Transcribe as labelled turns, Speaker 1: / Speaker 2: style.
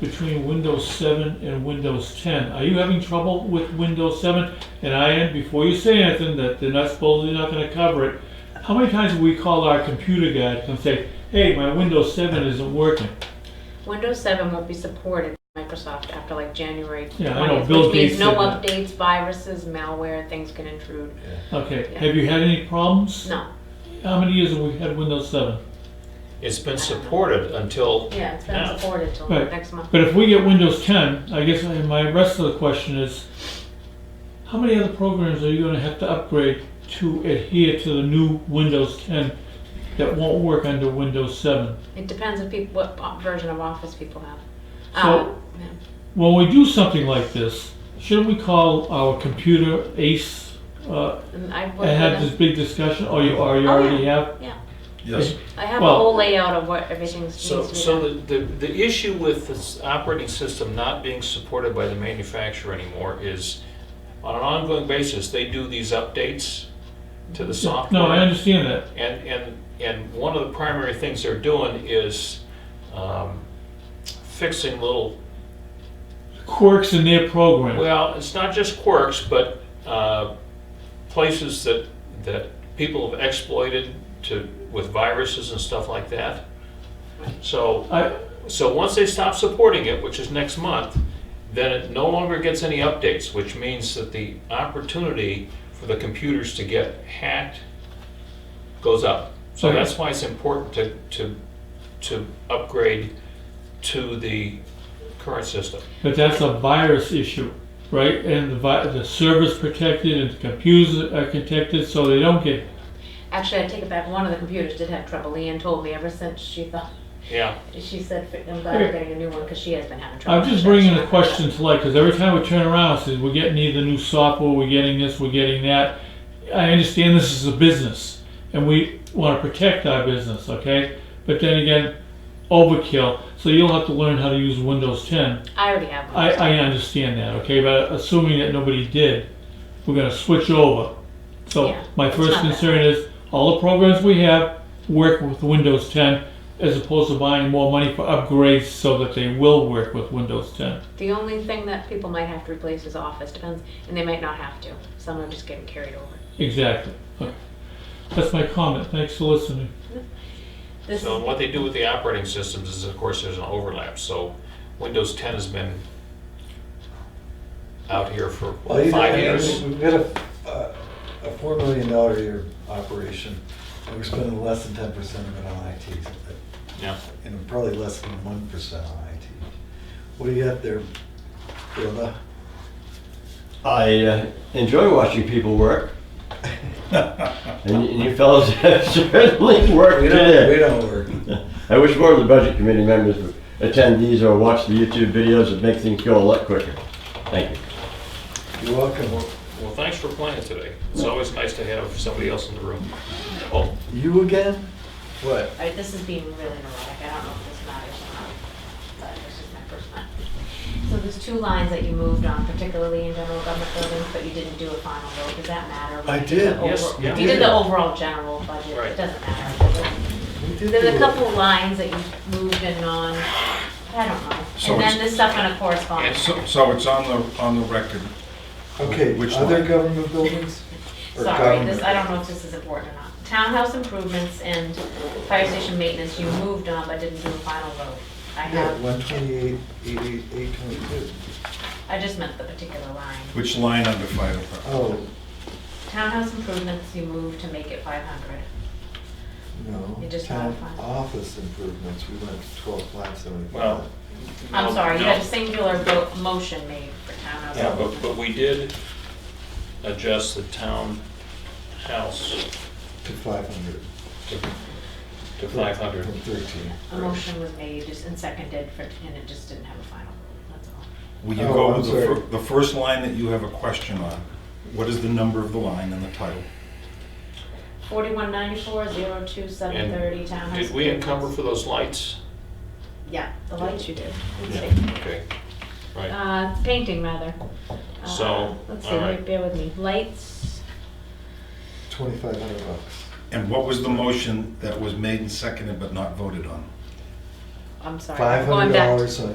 Speaker 1: between Windows 7 and Windows 10. Are you having trouble with Windows 7? And I am, before you say anything, that they're not supposedly not gonna cover it, how many times have we called our computer guy and say, hey, my Windows 7 isn't working?
Speaker 2: Windows 7 won't be supported by Microsoft after like January
Speaker 1: Yeah, I know,
Speaker 2: 20th,
Speaker 1: Bill
Speaker 2: which means
Speaker 1: Gates
Speaker 2: no
Speaker 1: said that.
Speaker 2: updates, viruses, malware, things can intrude.
Speaker 1: Okay,
Speaker 2: Yeah.
Speaker 1: have you had any problems?
Speaker 2: No,
Speaker 1: How many years have we had Windows 7?
Speaker 3: It's been supported until,
Speaker 2: yeah, it's been
Speaker 3: Yeah.
Speaker 2: supported till
Speaker 1: Right.
Speaker 2: next month.
Speaker 1: But if we get Windows 10, I guess I- my rest of the question is, how many other programs are you gonna have to upgrade to adhere to the new Windows 10 that won't work under Windows 7?
Speaker 2: It depends if people, what o- version of Office people have.
Speaker 1: So-
Speaker 2: Uh, yeah.
Speaker 1: When we do something like this, shouldn't we call our computer ace uh,
Speaker 2: And I've
Speaker 1: and have
Speaker 2: worked
Speaker 1: this
Speaker 2: with
Speaker 1: big discussion, or you, or you
Speaker 2: Oh, yeah.
Speaker 1: already have?
Speaker 2: them, yeah.
Speaker 4: Yes,
Speaker 2: I have a
Speaker 1: Well-
Speaker 2: whole layout of what everything needs to
Speaker 3: so,
Speaker 2: be
Speaker 3: so
Speaker 2: done.
Speaker 3: the, the the issue with this operating system not being supported by the manufacturer anymore is, on an ongoing basis, they do these updates to the software.
Speaker 1: No, I understand that.
Speaker 3: And, and, and one of the primary things they're doing is um, fixing little,
Speaker 1: Quirks in their program.
Speaker 3: well, it's not just quirks, but uh, places that, that people have exploited to, with viruses and stuff like that. So,
Speaker 1: I,
Speaker 3: so once they stop supporting it, which is next month, then it no longer gets any updates, which means that the opportunity for the computers to get hacked goes up. So
Speaker 1: Okay.
Speaker 3: that's why it's important to, to, to upgrade to the current system.
Speaker 1: But that's a virus issue, right? And the vi- the server's protected and the computers are protected, so they don't get.
Speaker 2: Actually, I take it back, one of the computers did have trouble. Leanne told me ever since she thought,
Speaker 3: Yeah,
Speaker 2: she said, I'm glad
Speaker 1: Okay.
Speaker 2: we're getting a new one because she has been having trouble.
Speaker 1: I'm just bringing the question to light because every time we turn around, it says we're getting either new software, we're getting this, we're getting that. I understand this is a business, and we want to protect our business, okay? But then again, overkill. So you'll have to learn how to use Windows 10.
Speaker 2: I already have one.
Speaker 1: I, I understand that, okay, but assuming that nobody did, we're gonna switch over. So
Speaker 2: Yeah,
Speaker 1: my
Speaker 2: it's
Speaker 1: first
Speaker 2: not bad.
Speaker 1: concern is, all the programs we have work with Windows ten, as opposed to buying more money for upgrades so that they will work with Windows ten.
Speaker 2: The only thing that people might have to replace is Office, depends, and they might not have to. Some are just getting carried over.
Speaker 1: Exactly. Okay. That's my comment, thanks for listening.
Speaker 2: This,
Speaker 3: so what they do with the operating systems is, of course, there's an overlap, so Windows ten has been out here for
Speaker 4: well, you know, I
Speaker 3: five
Speaker 4: mean,
Speaker 3: years.
Speaker 4: we've got a, a- a four million dollar a year operation, and we're spending less than ten percent of it on IT,
Speaker 3: Yeah.
Speaker 4: and probably less than one percent on IT. What do you got there, Bill?
Speaker 5: I uh, enjoy watching people work, and, and you fellows have certainly worked
Speaker 4: We
Speaker 5: it
Speaker 4: don't, we
Speaker 5: in.
Speaker 4: don't work.
Speaker 5: I wish more of the budget committee members would attend these or watch the YouTube videos that make things go a lot quicker. Thank you.
Speaker 4: You're welcome.
Speaker 3: Well, thanks for playing today. It's always nice to have somebody else in the room. Oh,
Speaker 4: You again? What?
Speaker 2: all right, this is being really neurotic, I don't know if this matters or not, but this is my first one. So there's two lines that you moved on, particularly in general government buildings, but you didn't do a final vote, does that matter?
Speaker 4: I
Speaker 2: You
Speaker 4: did,
Speaker 2: the
Speaker 3: yes,
Speaker 2: over-
Speaker 3: yeah.
Speaker 2: You did the overall general budget,
Speaker 3: Right.
Speaker 2: it doesn't matter.
Speaker 4: We did
Speaker 2: There's
Speaker 4: do
Speaker 2: a
Speaker 4: it.
Speaker 2: couple lines that you moved in on, I don't know,
Speaker 6: So
Speaker 2: and then
Speaker 6: it's-
Speaker 2: this stuff kind of
Speaker 6: And
Speaker 2: corresponds.
Speaker 6: so, so it's on the, on the record.
Speaker 4: Okay,
Speaker 6: Which
Speaker 4: other
Speaker 6: line?
Speaker 4: government buildings? Or
Speaker 2: Sorry,
Speaker 4: government?
Speaker 2: this, I don't know if this is important or not. Townhouse improvements and fire station maintenance, you moved on but didn't do a final vote. I
Speaker 4: Yeah,
Speaker 2: have,
Speaker 4: one twenty-eight, eight, eight, eight twenty-two.
Speaker 2: I just meant the particular line.
Speaker 6: Which line under fire department?
Speaker 4: Oh,
Speaker 2: Townhouse improvements, you moved to make it five hundred.
Speaker 4: no.
Speaker 2: You just
Speaker 4: Town
Speaker 2: modified.
Speaker 4: office improvements, we went to twelve, five seventy-five.
Speaker 3: Well,
Speaker 2: I'm
Speaker 3: no,
Speaker 2: sorry, you
Speaker 3: no.
Speaker 2: had a singular vote, motion made for townhouse.
Speaker 3: Yeah, but,
Speaker 2: improvements.
Speaker 3: but we did adjust the townhouse
Speaker 4: To five hundred.
Speaker 3: to, to five hundred.
Speaker 4: From thirteen.
Speaker 2: A motion was made just and seconded for, and it just didn't have a final vote, that's all.
Speaker 6: Will you
Speaker 4: Oh,
Speaker 6: go
Speaker 4: I'm
Speaker 6: with the, fir- the first line that you have a question on? What is the number of the line and the title?
Speaker 2: Forty-one ninety-four, zero two, seven thirty, townhouse.
Speaker 3: Did we encumber
Speaker 2: improvements.
Speaker 3: for those lights?
Speaker 2: Yeah, the lights you did. Let's
Speaker 3: Yeah.
Speaker 2: see.
Speaker 3: Okay, right.
Speaker 2: Uh, painting rather. Uh,
Speaker 3: So,
Speaker 2: Let's see,
Speaker 3: all right.
Speaker 2: wait, bear with me. Lights,
Speaker 4: Twenty-five hundred bucks.
Speaker 6: And what was the motion that was made and seconded but not voted on?
Speaker 2: I'm sorry.
Speaker 4: Five
Speaker 2: going
Speaker 4: hundred
Speaker 2: back to-
Speaker 4: dollars on